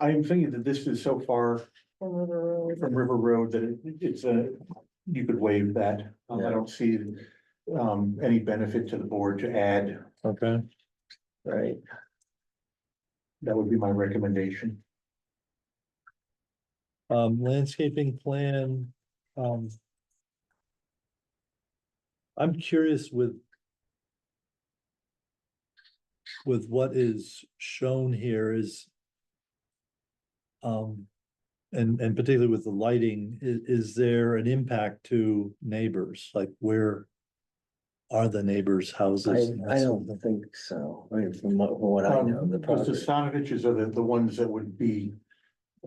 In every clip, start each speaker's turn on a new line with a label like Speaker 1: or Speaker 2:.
Speaker 1: I am thinking that this is so far
Speaker 2: From River Road.
Speaker 1: from River Road that it- it's a, you could waive that. Um, I don't see um, any benefit to the board to add.
Speaker 3: Okay,
Speaker 4: right?
Speaker 1: That would be my recommendation.
Speaker 3: um, landscaping plan, um. I'm curious with. With what is shown here is. Um, and, and particularly with the lighting, i- is there an impact to neighbors? Like where? Are the neighbors' houses? and
Speaker 4: I,
Speaker 3: that
Speaker 4: I
Speaker 3: sort of
Speaker 4: don't
Speaker 3: thing?
Speaker 4: think so, I mean, from what, from what I know,
Speaker 1: Um,
Speaker 4: of the
Speaker 1: Because the
Speaker 4: property.
Speaker 1: Stanoviches are the, the ones that would be,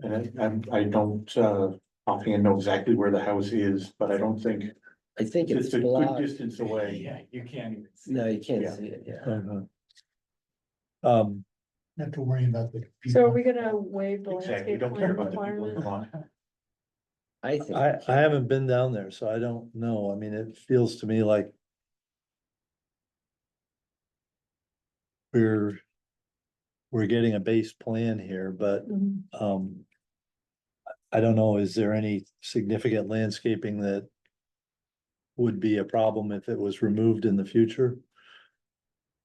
Speaker 1: and I, I'm- I don't, uh, offhand know exactly where the house is, but I don't think
Speaker 4: I think it's
Speaker 1: it's a good
Speaker 4: blocked,
Speaker 1: distance away.
Speaker 5: Yeah, you can't even see.
Speaker 4: no, you can't
Speaker 1: Yeah.
Speaker 4: see it, yeah.
Speaker 3: Uh-huh. Um,
Speaker 6: Not to worry about the.
Speaker 2: So are we gonna waive the
Speaker 1: Exactly, we
Speaker 2: landscape
Speaker 1: don't care
Speaker 2: plan
Speaker 1: about the people in the
Speaker 2: requirement?
Speaker 1: lawn.
Speaker 4: I think.
Speaker 3: I, I haven't been down there, so I don't know. I mean, it feels to me like. We're. We're getting a base plan here, but,
Speaker 2: Mhm.
Speaker 3: um. I- I don't know, is there any significant landscaping that? Would be a problem if it was removed in the future?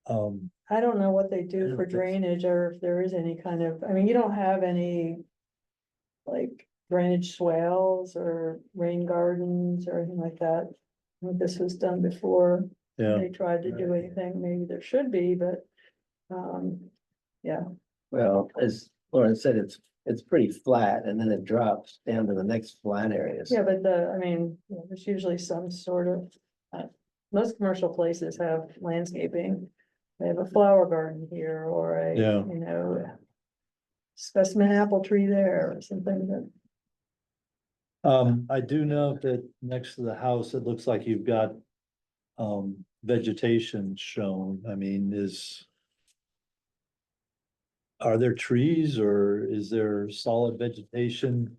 Speaker 3: Um,
Speaker 2: I don't know what they
Speaker 3: I
Speaker 2: do
Speaker 3: don't
Speaker 2: for
Speaker 3: think so.
Speaker 2: drainage or if there is any kind of, I mean, you don't have any. Like drainage swales or rain gardens or anything like that. I think This was done before
Speaker 3: yeah,
Speaker 2: they tried to do anything, maybe there should be, but. Um,
Speaker 4: Well, as Lauren said, it's, it's pretty flat and then it drops down to the next flat area. so-
Speaker 2: yeah, but the, I mean, you know, there's usually some sort of. uh, Most commercial places have landscaping. They have a flower garden here or a,
Speaker 3: Yeah.
Speaker 2: you know. Specimen apple tree there or something that.
Speaker 3: um, I do know that next to the house, it looks like you've got. Um, vegetation shown, I mean, is. Are there trees or is there solid vegetation?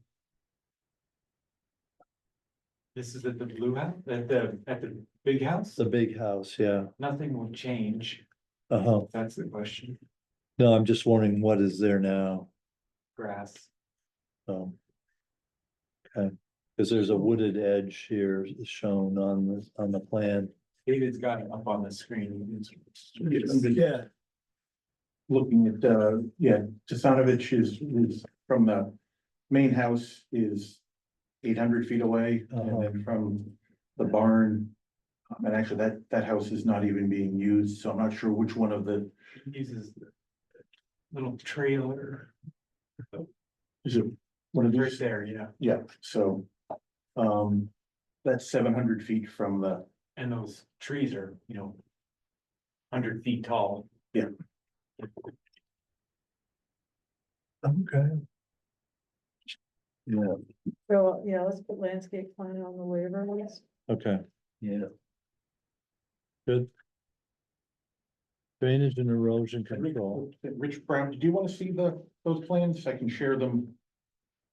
Speaker 5: This is at the blue house, at the, at the big house,
Speaker 3: It's a big house, yeah.
Speaker 5: nothing will change,
Speaker 3: Uh-huh.
Speaker 5: that's the question,
Speaker 3: No, I'm just wondering what is there now,
Speaker 5: grass.
Speaker 3: um. Okay, cause there's a wooded edge here shown on the, on the plan.
Speaker 5: David's got it up on the screen.
Speaker 1: Yeah. Looking at, uh, yeah, Tassanovich is, is from the main house is eight hundred feet away
Speaker 3: Uh-huh.
Speaker 1: and then from the barn. um, And actually that, that house is not even being used, so I'm not sure which one of the,
Speaker 5: Uses the little trailer
Speaker 1: is it one of
Speaker 5: right
Speaker 1: these?
Speaker 5: there, yeah,
Speaker 1: Yeah, so, um, that's seven hundred feet from the,
Speaker 5: and those trees are, you know. Hundred feet tall.
Speaker 3: Okay. Yeah,
Speaker 2: So, yeah, let's put landscape plan on the waiver list.
Speaker 3: okay,
Speaker 4: Yeah.
Speaker 3: drainage and erosion control,
Speaker 1: Rich Brown, do you want to see the, those plans? I can share them.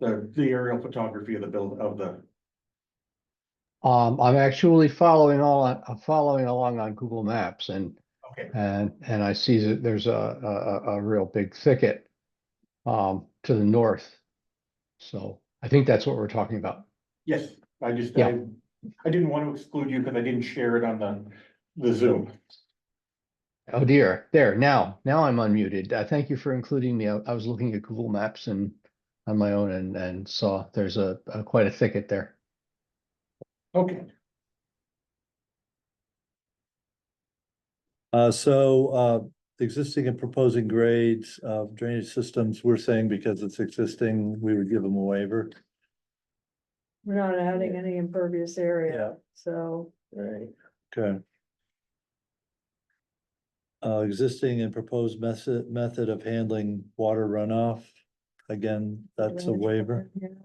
Speaker 1: The, the aerial photography of the build, of the
Speaker 7: Um, I'm actually following all, on- I'm following along on Google Maps and,
Speaker 1: Okay.
Speaker 7: and, and I see that there's a, a, a, a real big thicket um, to the north. So I think that's what we're talking about.
Speaker 1: Yes, I just, I,
Speaker 7: Yeah.
Speaker 1: I didn't want to exclude you because I didn't share it on the, the Zoom.
Speaker 7: Oh dear, there, now, now I'm unmuted. Uh, thank you for including me. I, I was looking at Google Maps and on my own and, and saw there's a, a quite a thicket there.
Speaker 1: Okay.
Speaker 3: uh, so, uh, the existing and proposing grades of drainage systems, we're saying because it's existing, we would give them a waiver.
Speaker 2: We're not adding any impervious area, so
Speaker 4: Right.
Speaker 3: Okay. Uh, existing and proposed method, method of handling water runoff, again, that's a
Speaker 2: Drainage
Speaker 3: waiver.
Speaker 2: plan,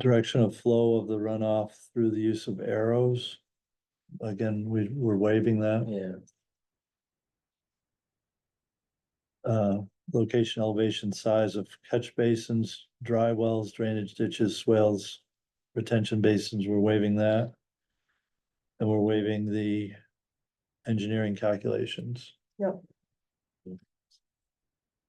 Speaker 3: Direction of flow of the runoff through the use of arrows. Again, we, we're waiving that.
Speaker 4: Yeah,
Speaker 3: Uh, location, elevation, size of catch basins, dry wells, drainage ditches, swales, retention basins, we're waiving that. And we're waiving the engineering calculations.
Speaker 2: Yep.